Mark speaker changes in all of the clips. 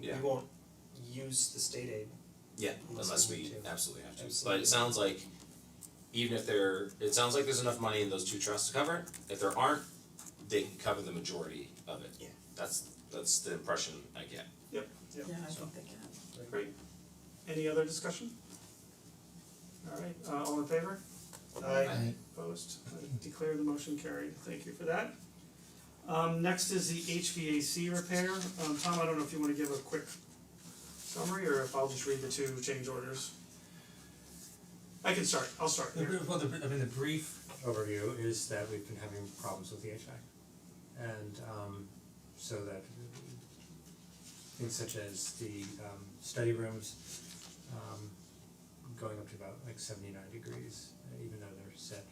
Speaker 1: Yeah.
Speaker 2: we won't use the state aid.
Speaker 1: Yeah,
Speaker 2: Unless
Speaker 1: unless
Speaker 2: we
Speaker 1: we
Speaker 2: need to.
Speaker 1: absolutely have to, but
Speaker 2: Absolutely.
Speaker 1: it sounds like even if there, it sounds like there's enough money in those two trusts to cover it, if there aren't, they can cover the majority of it.
Speaker 2: Yeah.
Speaker 1: That's that's the impression I get.
Speaker 3: Yeah,
Speaker 4: I
Speaker 1: So-
Speaker 4: think they can.
Speaker 3: great. Any other discussion? Alright, uh all in favor?
Speaker 2: I
Speaker 3: Opposed, I declare the motion carried, thank you for that. Um next is the HVAC repair, um Tom, I don't know if you wanna give a quick summary or if I'll just read the two change orders. I can start, I'll start
Speaker 5: The
Speaker 3: here,
Speaker 5: br- well, the, br- I mean, the brief overview is that we've been having problems with the HVAC. And um so that things such as the um study rooms um going up to about like seventy nine degrees, uh, even though they're set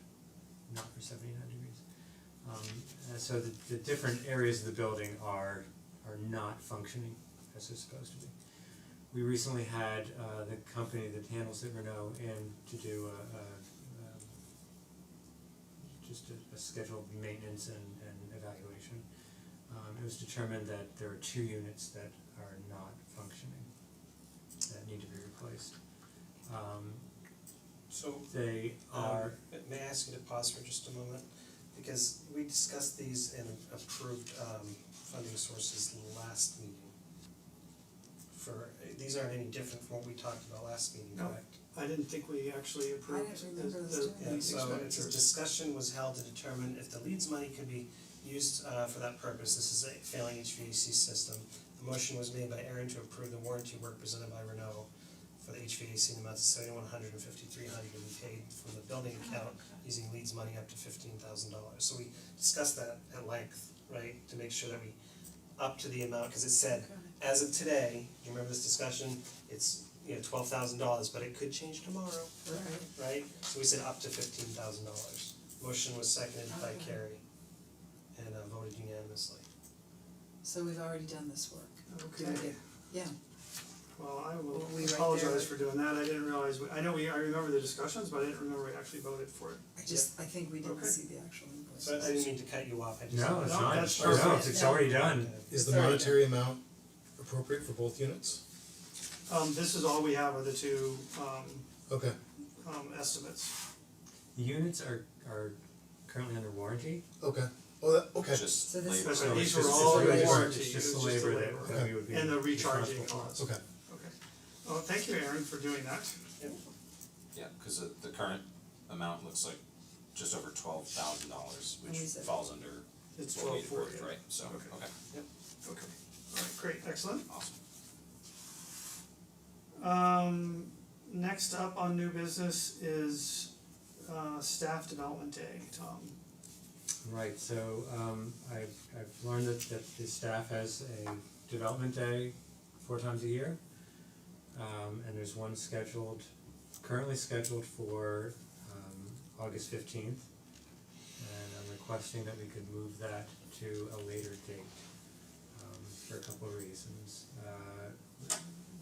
Speaker 5: not for seventy nine degrees. Um and so the the different areas of the building are are not functioning as they're supposed to be. We recently had uh the company that handles it, Renault, in to do a a um just a a scheduled maintenance and and evaluation. Um it was determined that there are two units that are not functioning that need to be replaced. Um
Speaker 2: so
Speaker 5: they
Speaker 2: um
Speaker 5: are,
Speaker 2: may I ask you to pause for just a moment? Because we discussed these and approved um funding sources last meeting. For, these aren't any different from what we talked about last meeting,
Speaker 3: No.
Speaker 2: correct?
Speaker 3: I didn't think we actually approved the
Speaker 4: remember this
Speaker 3: the
Speaker 4: doing
Speaker 2: Yeah,
Speaker 3: these
Speaker 2: so it's a
Speaker 3: expenditures.
Speaker 2: discussion was held to determine if the leads money could be used uh for that purpose, this is a failing HVAC system. The motion was made by Aaron to approve the warranty work presented by Renault for the HVAC in the amount of seventy one hundred and fifty three hundred to be paid from the building account using leads money up to fifteen thousand dollars, so we discussed that at length, right, to make sure that we up to the amount, cause it said, as of today, you remember this discussion, it's, you know, twelve thousand dollars, but it could change tomorrow
Speaker 4: Right.
Speaker 2: right? So we said up to fifteen thousand dollars. Motion was seconded by
Speaker 4: Okay.
Speaker 2: Carrie and uh, voted unanimously.
Speaker 4: So we've already done this work.
Speaker 3: Okay.
Speaker 4: Did I get- Yeah,
Speaker 3: Well, I
Speaker 4: Were
Speaker 3: will
Speaker 4: we right
Speaker 3: apologize
Speaker 4: there?
Speaker 3: for doing that, I didn't realize, we- I know we, I remember the discussions, but I didn't remember we actually voted for it.
Speaker 4: I just, I think we didn't
Speaker 3: Okay.
Speaker 4: see the actual invoice.
Speaker 2: So I didn't mean to cut you off, I just.
Speaker 5: no, it's
Speaker 3: No,
Speaker 5: not,
Speaker 3: that's
Speaker 5: no,
Speaker 3: perfect.
Speaker 5: it's it's already done.
Speaker 2: Okay.
Speaker 6: Is the
Speaker 4: Sorry.
Speaker 6: monetary amount appropriate for both units?
Speaker 3: Um this is all we have are the two um
Speaker 6: Okay,
Speaker 3: um estimates.
Speaker 5: The units are are currently under warranty,
Speaker 6: okay, oh, that, okay,
Speaker 1: Just
Speaker 4: So this
Speaker 1: labor.
Speaker 3: is-
Speaker 5: so
Speaker 3: These
Speaker 5: it's
Speaker 3: were
Speaker 5: just, it's
Speaker 3: all
Speaker 5: the labor,
Speaker 3: warranty,
Speaker 5: it's just
Speaker 3: it
Speaker 5: the
Speaker 3: was just the
Speaker 5: labor
Speaker 3: labor.
Speaker 5: that that we would be
Speaker 3: And the recharging
Speaker 5: responsible
Speaker 3: costs.
Speaker 5: for.
Speaker 6: okay.
Speaker 3: Okay. Well, thank you, Aaron, for doing that.
Speaker 1: Yeah, cause the the current amount looks like just over twelve thousand dollars, which
Speaker 4: And we said-
Speaker 1: falls under
Speaker 3: It's
Speaker 1: what we
Speaker 3: twelve
Speaker 1: had
Speaker 3: forty.
Speaker 1: approved, right? So, okay,
Speaker 3: Okay. Okay. Alright, great, excellent.
Speaker 1: awesome.
Speaker 3: Um next up on new business is uh staff development day, Tom.
Speaker 5: Right, so um I've I've learned that that the staff has a development day four times a year. Um and there's one scheduled, currently scheduled for um August fifteenth. And I'm requesting that we could move that to a later date um for a couple of reasons. Uh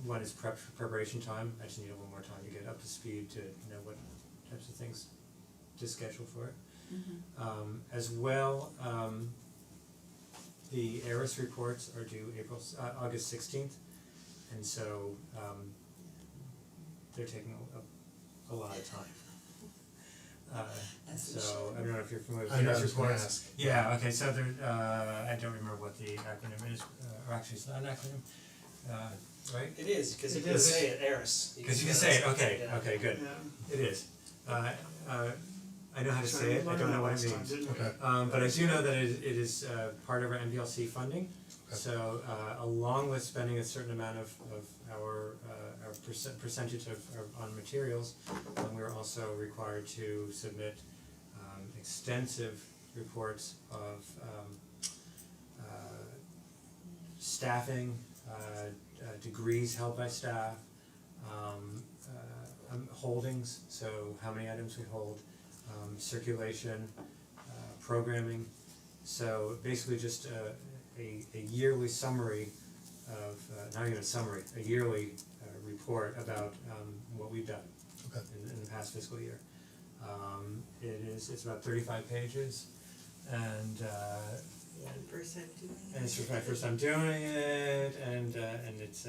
Speaker 5: one is prep preparation time, I just need a little more time to get up to speed to know what types of things to schedule for it.
Speaker 4: Mhm.
Speaker 5: Um as well, um the ARIS reports are due April s- uh August sixteenth. And so um they're taking a a lot of time. Uh
Speaker 4: As
Speaker 5: so
Speaker 4: it
Speaker 5: I
Speaker 4: should.
Speaker 5: don't know if you're familiar with
Speaker 6: I
Speaker 5: the
Speaker 6: know, I
Speaker 5: ARIS reports.
Speaker 6: was gonna ask.
Speaker 5: Yeah, okay, so there uh I don't remember what the acronym is, uh, or actually it's not an acronym, uh right?
Speaker 2: It is, cause you
Speaker 3: It
Speaker 2: can
Speaker 3: is.
Speaker 2: say it, Eris.
Speaker 5: Cause you can say, it, okay,
Speaker 2: Yeah.
Speaker 5: okay, good,
Speaker 3: Yeah.
Speaker 5: it is. Uh uh I know how to
Speaker 3: So
Speaker 5: say
Speaker 3: we
Speaker 5: it, I
Speaker 3: learned
Speaker 5: don't
Speaker 3: that
Speaker 5: know what it
Speaker 3: last
Speaker 5: means.
Speaker 3: time, didn't we?
Speaker 6: Okay.
Speaker 5: Um but I do know that it is it is uh part of our MPLC funding.
Speaker 6: Okay.
Speaker 5: So uh along with spending a certain amount of of our uh our percent percentage of of on materials, um we're also required to submit um extensive reports of um uh staffing, uh uh degrees held by staff, um uh um, holdings, so how many items we hold, um circulation, uh programming. So basically just a a a yearly summary of uh not even a summary, a yearly uh report about um what we've done
Speaker 6: Okay.
Speaker 5: in in the past fiscal year. Um it is, it's about thirty five pages and uh
Speaker 4: First time doing it.
Speaker 5: and it's my first time doing it and uh and it's